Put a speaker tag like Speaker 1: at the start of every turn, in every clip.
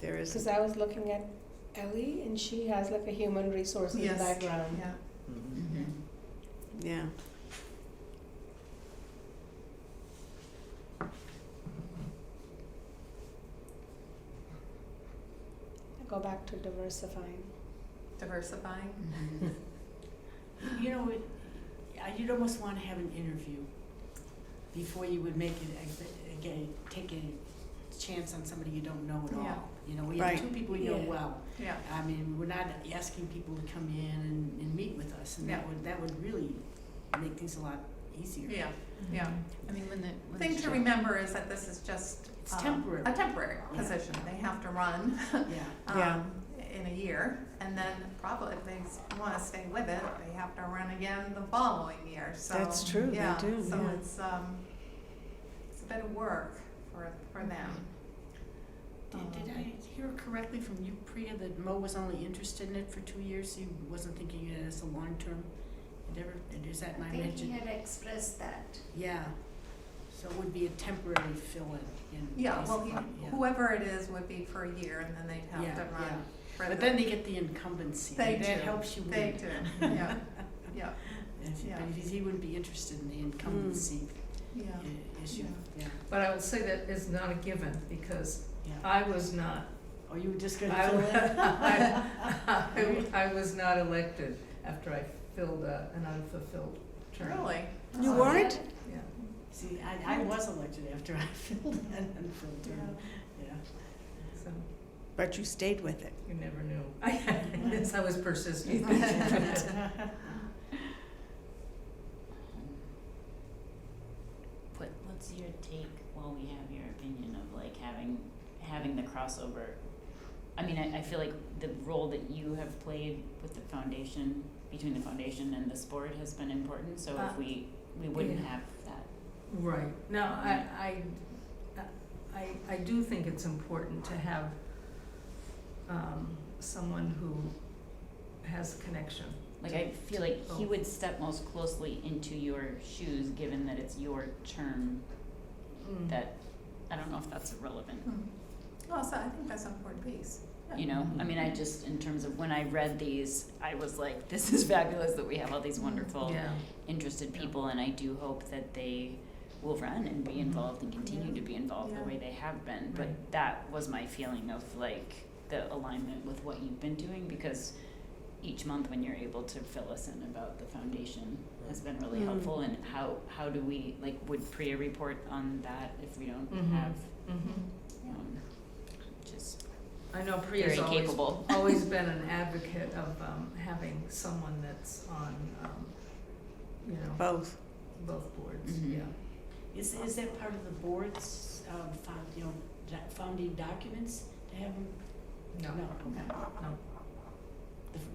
Speaker 1: There
Speaker 2: Because
Speaker 1: is,
Speaker 2: I was looking at Ellie and she has like a human resources
Speaker 3: Yes.
Speaker 2: background.
Speaker 3: Yeah.
Speaker 1: Mm-hmm. yeah.
Speaker 2: Go back to diversifying.
Speaker 3: Diversifying.
Speaker 4: Mm-hmm. You know, it, I- you'd almost want to have an interview before you would make it, ex- again, take a chance on somebody you don't know at
Speaker 3: Yeah.
Speaker 4: all. You know, we have
Speaker 1: Right.
Speaker 4: two people we know
Speaker 2: Yeah.
Speaker 4: well.
Speaker 3: Yeah.
Speaker 4: I mean, we're not asking people to come in and, and meet with us, and that
Speaker 3: Yeah.
Speaker 4: would, that would really make things a lot easier.
Speaker 3: Yeah. Yeah.
Speaker 5: I mean, when the. when
Speaker 3: Thing
Speaker 5: the
Speaker 3: to
Speaker 5: show-
Speaker 3: remember is that this is just
Speaker 4: It's
Speaker 3: um,
Speaker 4: temporary.
Speaker 3: A temporary
Speaker 4: Yeah.
Speaker 3: position. They have to run
Speaker 4: Yeah.
Speaker 1: Yeah.
Speaker 3: um, in a year, and then probably if they want to stay with it, they have to run again the following year. So
Speaker 1: That's true, they
Speaker 3: Yeah.
Speaker 1: do,
Speaker 3: so
Speaker 1: yeah.
Speaker 3: it's um, it's a bit of work for for them.
Speaker 4: Mm-hmm. Did, did
Speaker 3: Um,
Speaker 4: I hear correctly from you, Priya, that Mo was only interested in it for two years? He wasn't thinking of it as a long-term endeavor? And Is that my
Speaker 6: I
Speaker 4: mention?
Speaker 6: think he had expressed that.
Speaker 4: Yeah, so it would be a temporary fill-in in.
Speaker 3: Yeah, well, he,
Speaker 4: basically, yeah.
Speaker 3: whoever it is would be for a year, and then they'd have
Speaker 4: Yeah,
Speaker 3: to
Speaker 4: yeah.
Speaker 3: run. for
Speaker 4: But
Speaker 3: the-
Speaker 4: then they get the incumbency,
Speaker 3: They
Speaker 4: and that
Speaker 3: do.
Speaker 4: helps you
Speaker 3: They
Speaker 4: win.
Speaker 3: do, yeah, yeah,
Speaker 4: And if-
Speaker 3: yeah. Mm.
Speaker 4: But if he wouldn't be interested in the incumbency
Speaker 3: yeah.
Speaker 4: uh, issue, yeah,
Speaker 7: But I will say that is not a given, because
Speaker 4: yeah.
Speaker 7: I was not,
Speaker 4: Or you were just gonna
Speaker 7: I
Speaker 4: fill
Speaker 7: would-
Speaker 4: in?
Speaker 7: I, I was not elected after I filled a, an unfulfilled term.
Speaker 3: Really?
Speaker 1: You
Speaker 3: Oh,
Speaker 1: weren't?
Speaker 7: Yeah.
Speaker 4: See, I, I was elected after I filled in and filled
Speaker 3: Yeah.
Speaker 4: in, yeah.
Speaker 7: So,
Speaker 1: But you stayed with it.
Speaker 7: you never knew. Yes, I was persistent.
Speaker 5: What, what's your take while we have your opinion of like having, having the crossover? I mean, I, I feel like the role that you have played with the foundation, between the foundation and the sport has been important, so
Speaker 7: Uh,
Speaker 5: if we, we wouldn't
Speaker 7: yeah.
Speaker 5: have that.
Speaker 7: Right. No, I, I, I, I do think it's important to have um, someone who has connection.
Speaker 5: Like, I feel like he
Speaker 7: Oh.
Speaker 5: would step most closely into your shoes, given that it's your term
Speaker 7: Mm.
Speaker 5: that, I don't know if that's relevant.
Speaker 3: Hmm. Well, so I think that's an important piece.
Speaker 5: you know i mean i just in terms of when i read these i was like this is fabulous that we have all
Speaker 3: Mm-hmm.
Speaker 5: these wonderful
Speaker 7: Yeah.
Speaker 5: interested
Speaker 7: Yeah.
Speaker 5: people and i do hope that they will run and
Speaker 4: Mm-hmm.
Speaker 5: be involved and continue to be involved
Speaker 3: Yeah.
Speaker 5: the way they have been but
Speaker 7: Right.
Speaker 5: that was my feeling of like the alignment with what you've been doing because each month when you're able to fill us in about the foundation has been really
Speaker 1: Mm.
Speaker 5: helpful and how how do we like would priya report on that if we don't
Speaker 7: Mhm.
Speaker 5: have
Speaker 7: Mhm.
Speaker 5: um, just
Speaker 7: I know
Speaker 5: very
Speaker 7: Priya's always
Speaker 5: capable
Speaker 7: always been an advocate of um, having someone that's on, um, you know,
Speaker 1: Mm-hmm. Both.
Speaker 7: both boards,
Speaker 5: Mhm.
Speaker 7: yeah.
Speaker 4: Is, is that part of the board's, um, found, you know, doc- founding documents to have them?
Speaker 5: Oh,
Speaker 7: No,
Speaker 4: No, okay.
Speaker 7: no.
Speaker 4: The-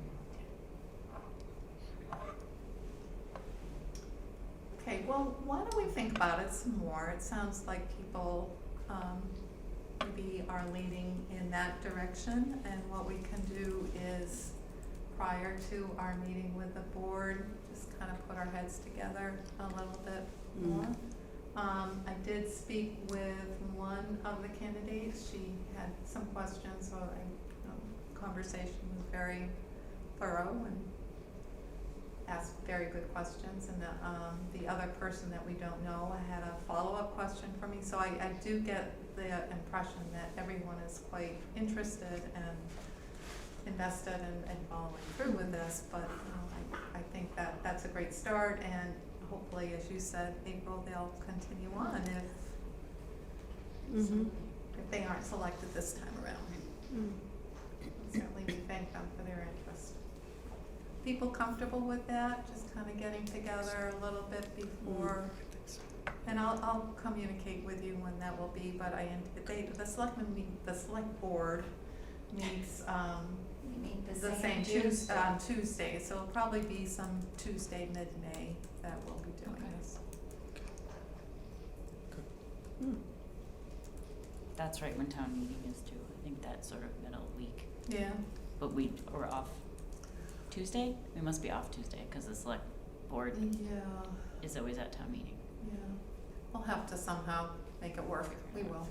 Speaker 3: Okay, well, why don't we think about it some more? It sounds like people um, maybe are leaning in that direction, and what we can do is, prior to our meeting with the board, just kind of put our heads together a little bit
Speaker 1: Mm.
Speaker 3: more. Um, I did speak with one of the candidates. She had some questions, so I, um, conversation was very thorough and asked very good questions. And the, um, the other person that we don't know had a follow-up question for me. So I, I do get the impression that everyone is quite interested and invested and, and following through with this. But, you know, I, I think that, that's a great start and hopefully, as you said, April, they'll continue on if,
Speaker 1: Mm-hmm.
Speaker 3: if they aren't selected this time around.
Speaker 6: Hmm.
Speaker 3: Certainly, we thank them for their interest. People comfortable with that, just kind of getting together a little bit before,
Speaker 6: Hmm.
Speaker 3: and I'll, I'll communicate with you when that will be, but I, ant- they, the selectmen meet, the select board meets, um,
Speaker 6: We meet the
Speaker 3: the
Speaker 6: same
Speaker 3: same Tues-
Speaker 6: Tuesday.
Speaker 3: on Tuesday, so it'll probably be some Tuesday, mid-May, that we'll be doing
Speaker 5: Okay.
Speaker 3: this.
Speaker 5: That's right, when town meeting is due, I think that's sort of middle week,
Speaker 3: Yeah,
Speaker 5: but we, we're off Tuesday? We must be off Tuesday, cause the select board
Speaker 3: yeah.
Speaker 5: is always at town meeting.
Speaker 3: Yeah, we'll have to somehow make it work, we will.